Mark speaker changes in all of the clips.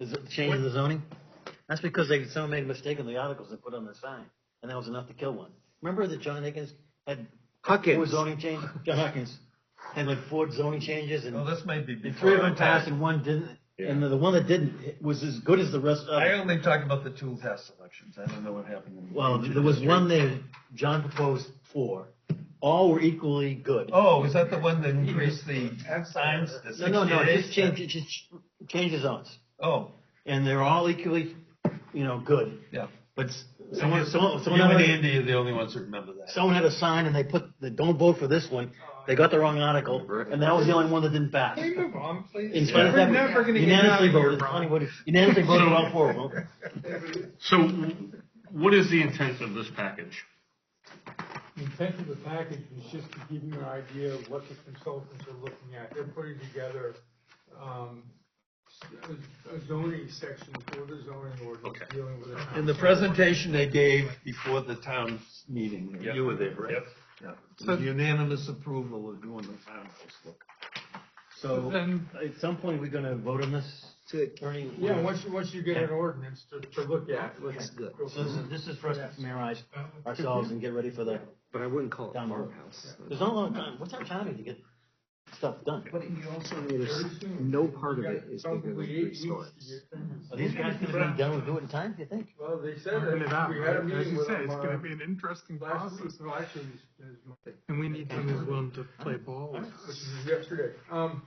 Speaker 1: Is it the change of the zoning? That's because they, someone made a mistake in the articles and put on the sign, and that was enough to kill one. Remember that John Higgins had four
Speaker 2: Huckins.
Speaker 1: zoning changes, John Huckins, had like four zoning changes and
Speaker 3: Well, this may be
Speaker 1: and
Speaker 3: before.
Speaker 1: three of them
Speaker 3: our
Speaker 1: passed
Speaker 3: time.
Speaker 1: and one didn't, and
Speaker 2: Yeah.
Speaker 1: the, the one that didn't was as good as the rest of
Speaker 3: I
Speaker 1: them.
Speaker 3: only talk about the tool test elections. I don't know what happened. in-
Speaker 1: Well, there was one that John proposed four. All were equally good.
Speaker 3: Oh, is that the one that increased the signs to
Speaker 1: No, no, no,
Speaker 3: sixty-eight?
Speaker 1: just change, just change the zones.
Speaker 3: Oh,
Speaker 1: And they're all equally, you know, good.
Speaker 3: yeah.
Speaker 1: But s- someone, someone,
Speaker 3: You
Speaker 1: someone.
Speaker 3: and
Speaker 1: already-
Speaker 3: Andy are the only ones who remember that.
Speaker 1: someone had a sign and they put the don't vote for this one. They got the wrong article, and that was the only one that didn't pass.
Speaker 4: Can you move on, please?
Speaker 1: In spite of that,
Speaker 4: We're never gonna get out
Speaker 1: unanimously
Speaker 4: of here,
Speaker 1: voted,
Speaker 4: Ron.
Speaker 1: voted- unanimously voted all four of them.
Speaker 5: So w- what is the intent of this package?
Speaker 4: The intent of the package was just to give you an idea of what the consultants are looking at. They're putting together, um, s- a zoning section for the zoning ordinance
Speaker 5: Okay.
Speaker 4: dealing with the town.
Speaker 3: In the presentation they gave before the town meeting,
Speaker 5: Yep.
Speaker 3: you were there, right?
Speaker 5: Yep.
Speaker 3: Yep. Unanimous approval of doing the town look.
Speaker 1: So
Speaker 4: Then,
Speaker 1: at some point, we're gonna vote on this, Attorney.
Speaker 4: yeah, once you, once you get an ordinance to, to look at, let's.
Speaker 2: good.
Speaker 4: go
Speaker 1: So
Speaker 4: through
Speaker 1: this is, this is for us to familiarize ourselves and get ready for the,
Speaker 2: But I wouldn't call it
Speaker 1: Down the road.
Speaker 2: farmhouse.
Speaker 1: there's not a lot of time, what's our timing to get stuff done?
Speaker 2: But you also notice
Speaker 4: Very soon.
Speaker 2: no part of
Speaker 4: You've
Speaker 2: it
Speaker 4: got
Speaker 2: is bigger than
Speaker 4: probably
Speaker 2: three
Speaker 4: eight weeks to
Speaker 2: stories.
Speaker 4: get things.
Speaker 1: Are these guys gonna be done with it in time, do you think?
Speaker 4: Well, they said
Speaker 6: Working it
Speaker 4: that,
Speaker 6: out,
Speaker 4: we had a
Speaker 6: right? As
Speaker 4: meeting
Speaker 6: you
Speaker 4: with
Speaker 6: say,
Speaker 4: them
Speaker 6: it's gonna
Speaker 4: on
Speaker 6: be an interesting
Speaker 4: last week,
Speaker 6: process,
Speaker 4: no, actually, it was- it was
Speaker 6: and we need someone who's willing to play ball with us.
Speaker 4: which is yesterday. Um,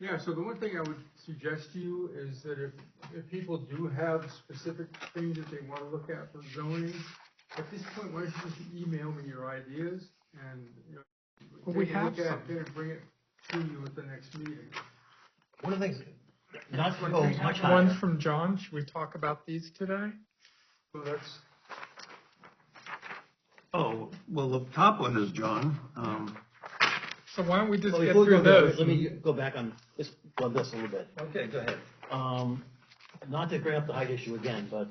Speaker 4: yeah, so the one thing I would suggest to you is that if, if people do have specific things that they wanna look at for zoning, at this point, why don't you just email me your ideas and, you know.
Speaker 6: Well, we
Speaker 4: take a look
Speaker 6: have
Speaker 4: at it
Speaker 6: some.
Speaker 4: And bring it to you at the next meeting.
Speaker 1: One of the things, not to go Oh, much
Speaker 6: One
Speaker 1: higher,
Speaker 6: from John, should we talk about these today?
Speaker 4: So that's,
Speaker 3: Oh, well, the top one is John. Um,
Speaker 6: So why don't we just
Speaker 1: Well,
Speaker 6: get
Speaker 1: before we
Speaker 6: through
Speaker 1: go there,
Speaker 6: those?
Speaker 1: let me go back on, this on this a little bit.
Speaker 3: Okay, go ahead.
Speaker 1: Um, not to bring up the height issue again, but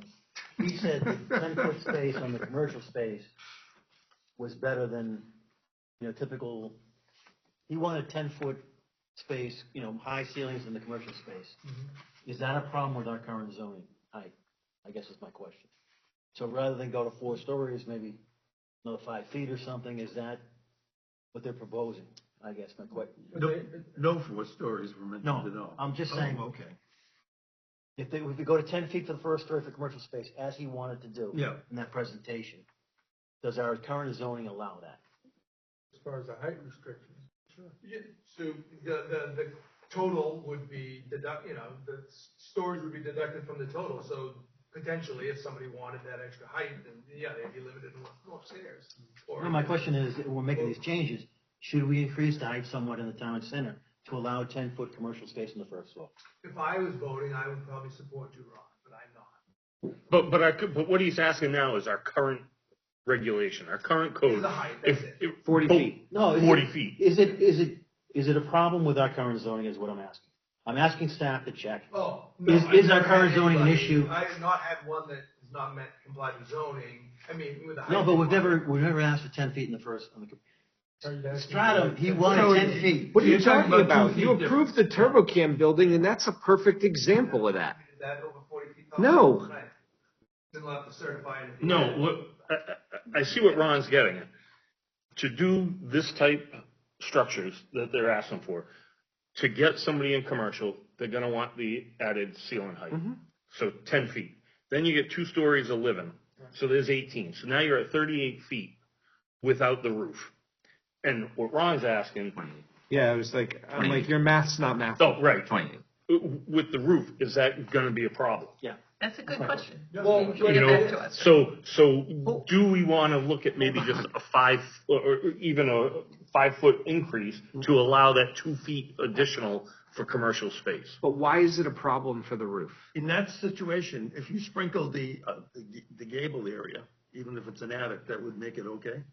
Speaker 1: he said ten foot space on the commercial space was better than, you know, typical, he wanted ten foot space, you know, high ceilings in the commercial space. Is that a problem with our current zoning height? I guess is my question. So rather than go to four stories, maybe another five feet or something, is that what they're proposing? I guess my question.
Speaker 3: No, no four stories were mentioned
Speaker 1: No,
Speaker 3: at all.
Speaker 1: I'm just
Speaker 3: Oh,
Speaker 1: saying-
Speaker 3: Okay,
Speaker 1: If they, if we go to ten feet for the first story for commercial space, as he wanted to do.
Speaker 3: Yeah.
Speaker 1: In that presentation, does our current zoning allow that?
Speaker 4: as far as the height restrictions.
Speaker 7: Yeah, so the, the, the total would be deduct, you know, the s- stories would be deducted from the total, so potentially if somebody wanted that extra height, then yeah, they'd be limited to what's upstairs. Or-
Speaker 1: No, my question is, if we're making these changes, should we increase the height somewhat in the town center to allow ten foot commercial space on the first floor?
Speaker 7: If I was voting, I would probably support you, Ron, but I'm not.
Speaker 5: But, but our, c- but what he's asking now is our current regulation, our current code.
Speaker 7: The height,
Speaker 5: If-
Speaker 7: that's it.
Speaker 5: if-
Speaker 2: 40
Speaker 5: oh,
Speaker 2: feet.
Speaker 1: No. is it-
Speaker 5: Forty feet.
Speaker 1: Is it, is it, is it a problem with our current zoning is what I'm asking? I'm asking staff to check.
Speaker 7: Oh. no,
Speaker 1: Is-
Speaker 7: I've
Speaker 1: is our
Speaker 7: never had
Speaker 1: current zoning an
Speaker 7: anybody-
Speaker 1: issue?
Speaker 7: I have not had one that has not met complied with zoning, I mean, with the height.
Speaker 1: No, but we've
Speaker 7: requirement.
Speaker 1: never, we've never asked for ten feet in the first, on the, com-
Speaker 4: Are you asking-
Speaker 1: stratum, he wanted ten feet.
Speaker 2: What are you
Speaker 3: You're talking
Speaker 2: talking
Speaker 3: about
Speaker 2: about?
Speaker 3: two
Speaker 2: You
Speaker 3: feet
Speaker 2: approved the TurboCam building, and that's a perfect example of that.
Speaker 7: Is that over forty feet? tall?
Speaker 2: No.
Speaker 7: Right. Then we'll have to certify it. at the
Speaker 5: No,
Speaker 7: end.
Speaker 5: look, I, I, I see what Ron's getting at. To do this type of structures that they're asking for, to get somebody in commercial, they're gonna want the added ceiling height. So ten feet. Then you get two stories of living, so there's eighteen. So now you're at thirty-eight feet without the roof. And what Ron's asking,
Speaker 2: Yeah, I was like, I'm like, your math's not math.
Speaker 5: oh, right,
Speaker 8: Twenty.
Speaker 5: w- with the roof, is that gonna be a problem?
Speaker 8: That's a good question.
Speaker 7: Well, but
Speaker 5: You
Speaker 7: it-
Speaker 5: know, so, so do we want to look at maybe just a five, or or even a five-foot increase to allow that two feet additional for commercial space?
Speaker 2: But why is it a problem for the roof?
Speaker 3: in that situation, if you sprinkle the, uh, the g- the gable area, even if it's an attic, that would make it okay?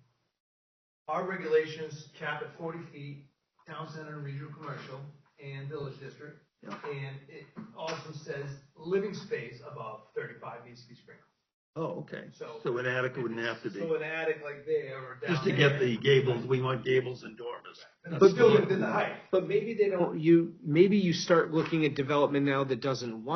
Speaker 7: Our regulations cap at forty feet, town center, regional commercial, and village district.
Speaker 3: Yeah.
Speaker 7: And it also says living space above thirty-five needs to be sprinkled.
Speaker 3: Oh, okay,
Speaker 7: So-
Speaker 3: so an attic wouldn't have to be,
Speaker 7: So an attic like there or down.
Speaker 3: just to get
Speaker 7: there,
Speaker 3: the gables, we want gables and dormers.
Speaker 7: and
Speaker 2: But-
Speaker 7: Still within the height.
Speaker 2: But maybe they don't. You, maybe you start looking at development now that doesn't want